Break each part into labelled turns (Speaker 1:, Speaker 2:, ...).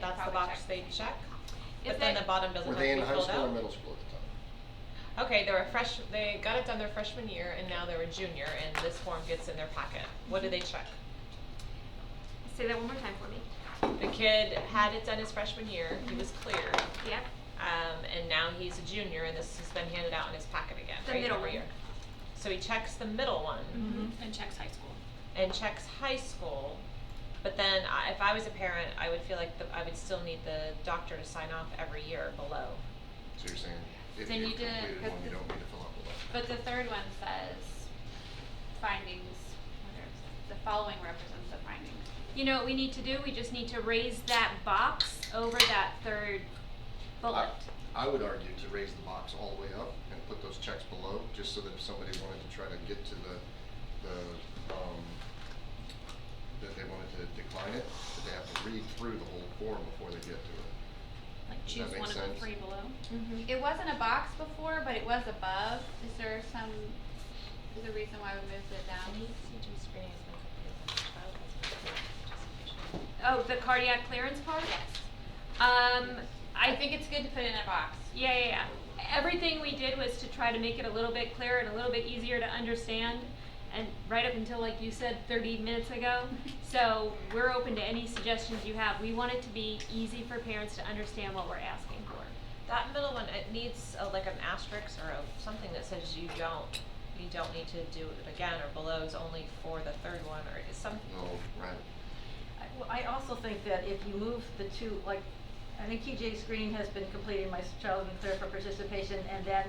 Speaker 1: that's the
Speaker 2: probably
Speaker 1: box
Speaker 2: check.
Speaker 1: they check.
Speaker 2: Is
Speaker 1: But then
Speaker 2: that-
Speaker 1: the bottom doesn't
Speaker 3: Were
Speaker 1: have
Speaker 3: they
Speaker 1: to
Speaker 3: in
Speaker 1: be
Speaker 3: high
Speaker 1: filled
Speaker 3: school or
Speaker 1: out.
Speaker 3: middle school at the time?
Speaker 1: Okay, they're a fresh, they got it done their freshman year and now they're a junior and this form gets in their pocket. What do they
Speaker 2: Mm-hmm.
Speaker 1: check?
Speaker 2: Say that one more time for me.
Speaker 1: The kid had it done his freshman year, he was clear,
Speaker 2: Yeah,
Speaker 1: um, and now he's a junior and this has been handed out in his pocket again,
Speaker 2: the
Speaker 1: right,
Speaker 2: middle
Speaker 1: every
Speaker 2: one.
Speaker 1: year. So he checks the middle one.
Speaker 4: and checks high school.
Speaker 2: Mm-hmm.
Speaker 1: and checks high school. But then I, if I was a parent, I would feel like the, I would still need the doctor to sign off every year below.
Speaker 3: So you're saying if
Speaker 4: Then
Speaker 3: you
Speaker 4: you didn't-
Speaker 3: completed one, you don't need to fill out the left?
Speaker 4: But the third one says findings, whether it's- the following represents the findings.
Speaker 2: You know what we need to do? We just need to raise that box over that third
Speaker 4: Uh,
Speaker 2: bullet.
Speaker 3: I would argue to raise the box all the way up and put those checks below, just so that if somebody wanted to try to get to the, the, um, that they wanted to decline it, that they have to read through the whole form before they get to it.
Speaker 4: Like
Speaker 3: Does that
Speaker 4: choose
Speaker 3: make
Speaker 4: one of the
Speaker 3: sense?
Speaker 4: three below.
Speaker 1: Mm-hmm.
Speaker 5: It wasn't a box before, but it was above. Is there some, is there a reason why we moved it down?
Speaker 2: Oh, the cardiac clearance part?
Speaker 5: Yes.
Speaker 2: Um,
Speaker 5: I think it's good to put it in a box.
Speaker 2: Yeah, yeah, yeah. Everything we did was to try to make it a little bit clearer and a little bit easier to understand. And right up until, like you said, thirty minutes ago. So we're open to any suggestions you have. We want it to be easy for parents to understand what we're asking for.
Speaker 1: That middle one, it needs a, like an asterisk or a, something that says you don't, you don't need to do it again or below is only for the third one or is some.
Speaker 3: No, right.
Speaker 6: I- Well, I also think that if you move the two, like, I think TJ Screen has been completing my child's been clear for participation, and then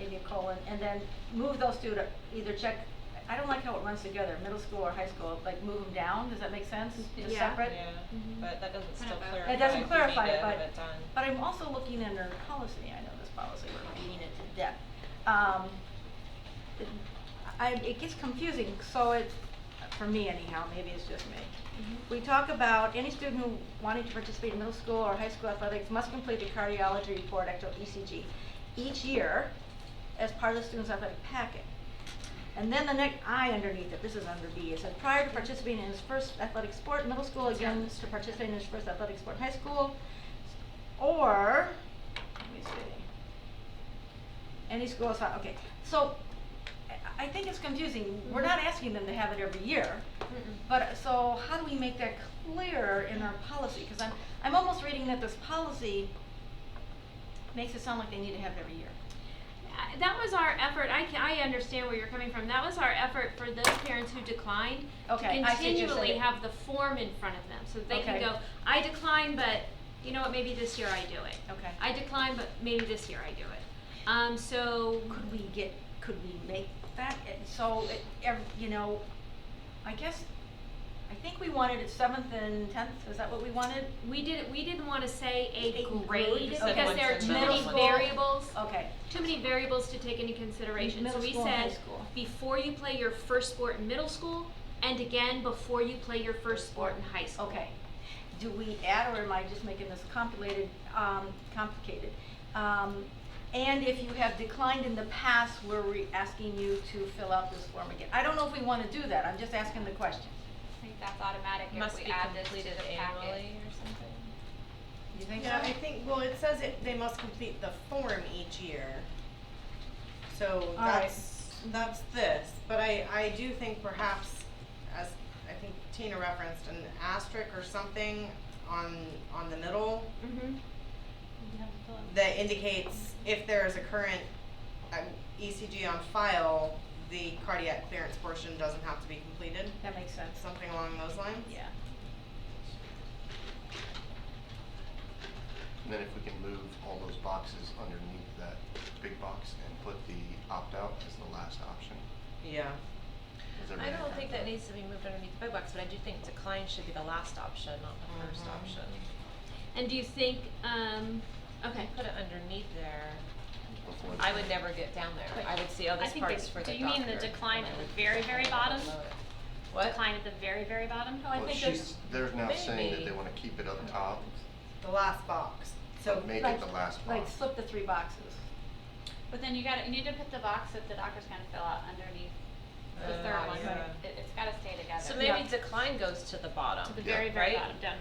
Speaker 6: maybe a colon, and then move those two to either check, I don't like how it runs together, middle school or high school, like move them down, does that make sense? Just
Speaker 2: Yeah.
Speaker 6: separate?
Speaker 1: Yeah,
Speaker 4: Mm-hmm.
Speaker 2: Mhm.
Speaker 1: but that doesn't
Speaker 4: Kind
Speaker 1: still
Speaker 4: of a-
Speaker 1: clarify.
Speaker 6: It doesn't
Speaker 1: if you need
Speaker 6: clarify
Speaker 1: to
Speaker 6: it,
Speaker 1: have
Speaker 6: but-
Speaker 1: it done.
Speaker 6: But I'm also looking under policy, I know this policy, we're reading it to death. Um, it- I, it gets confusing, so it, for me anyhow, maybe it's just me. We talk about any student who wanting to participate in middle school or high school athletics must complete the cardiology report, actual ECG, each year as part of the student's athletic packet. And then the next I underneath it, this is under B, it says prior to participating in his first athletic sport, middle school, again, to participate in his first athletic sport, in high school, or, let me see. Any school is fine, okay, so, I, I think it's confusing, we're not asking them to have it every year. But, so how do we make that clearer in our policy? Cause I'm, I'm almost reading that this policy makes it sound like they need to have it every year.
Speaker 2: I- Uh, that was our effort. I can, I understand where you're coming from. That was our effort for those parents who declined
Speaker 6: Okay,
Speaker 2: to
Speaker 6: I see what you're
Speaker 2: continually
Speaker 6: saying.
Speaker 2: have the form in front of them so that they
Speaker 6: Okay.
Speaker 2: can go, I decline, but you know what, maybe this year I do it.
Speaker 6: Okay.
Speaker 2: I decline, but maybe this year I do it. Um, so
Speaker 6: Could we get, could we make that, it- so it, ev- you know, I guess, I think we wanted it seventh and tenth, is that what we wanted?
Speaker 2: we didn't we didn't want to say a
Speaker 6: A grade,
Speaker 2: grade
Speaker 1: you said
Speaker 2: because
Speaker 1: once
Speaker 2: there are
Speaker 1: in
Speaker 2: too
Speaker 1: middle
Speaker 2: many
Speaker 1: school.
Speaker 2: variables.
Speaker 6: Okay,
Speaker 2: Too many variables to take into consideration.
Speaker 6: Oh. Middle
Speaker 2: so we
Speaker 6: school and high
Speaker 2: said
Speaker 6: school.
Speaker 2: before you play your first sport in middle school and again before you play your first sport in high school.
Speaker 6: okay. Do we add, or am I just making this complicated, um, complicated? Um, and if you have declined in the past, we're re- asking you to fill out this form again. I don't know if we wanna do that, I'm just asking the question.
Speaker 4: I think that's automatic
Speaker 1: Must
Speaker 4: if
Speaker 1: be
Speaker 4: we add this to the
Speaker 1: completed
Speaker 4: packet.
Speaker 1: annually or something.
Speaker 6: You think so?
Speaker 7: Yeah, I think, well, it says it, they must complete the form each year. So
Speaker 6: right.
Speaker 7: that's, that's this, but I, I do think perhaps, as I think Tina referenced, an asterisk or something on, on the middle
Speaker 2: Mm-hmm.
Speaker 7: that indicates if there is a current um, ECG on file, the cardiac clearance portion doesn't have to be completed,
Speaker 6: That makes sense.
Speaker 7: something along those lines.
Speaker 6: Yeah.
Speaker 3: And then if we can move all those boxes underneath that big box and put the opt-out as the last option.
Speaker 7: Yeah.
Speaker 3: Does
Speaker 1: I
Speaker 3: everybody
Speaker 1: don't
Speaker 3: agree
Speaker 1: think
Speaker 3: with
Speaker 1: that needs to be moved underneath the big box, but I do think decline should be the last option, not the first
Speaker 4: Mm-hmm.
Speaker 7: Mhm.
Speaker 1: option.
Speaker 2: And do you think, um, okay.
Speaker 1: Put it underneath there.
Speaker 3: Before
Speaker 1: I
Speaker 3: the-
Speaker 1: would never get down there. I would see, oh,
Speaker 4: I
Speaker 1: this
Speaker 4: think the-
Speaker 1: part's for the doctor.
Speaker 4: do you mean the decline
Speaker 1: and I
Speaker 4: at the
Speaker 1: would
Speaker 4: very,
Speaker 1: decline
Speaker 4: very
Speaker 1: and
Speaker 4: bottom?
Speaker 1: below it. What?
Speaker 4: Decline at the very, very bottom.
Speaker 6: Oh, I
Speaker 3: Well,
Speaker 6: think
Speaker 3: she's,
Speaker 6: there's,
Speaker 3: they're now saying that they
Speaker 1: Maybe.
Speaker 3: wanna keep it up top,
Speaker 7: The last box, so.
Speaker 3: but make
Speaker 6: like-
Speaker 3: it the last box.
Speaker 6: like, slip the three boxes.
Speaker 4: But then you gotta, you need to put the box that the doctor's gonna fill out underneath the
Speaker 1: Uh,
Speaker 4: third one.
Speaker 1: yeah.
Speaker 4: It, it's gotta stay together.
Speaker 1: So
Speaker 6: Yeah.
Speaker 1: maybe decline goes to the bottom.
Speaker 4: To the
Speaker 3: Yeah.
Speaker 4: very, very
Speaker 1: Right?
Speaker 4: bottom, down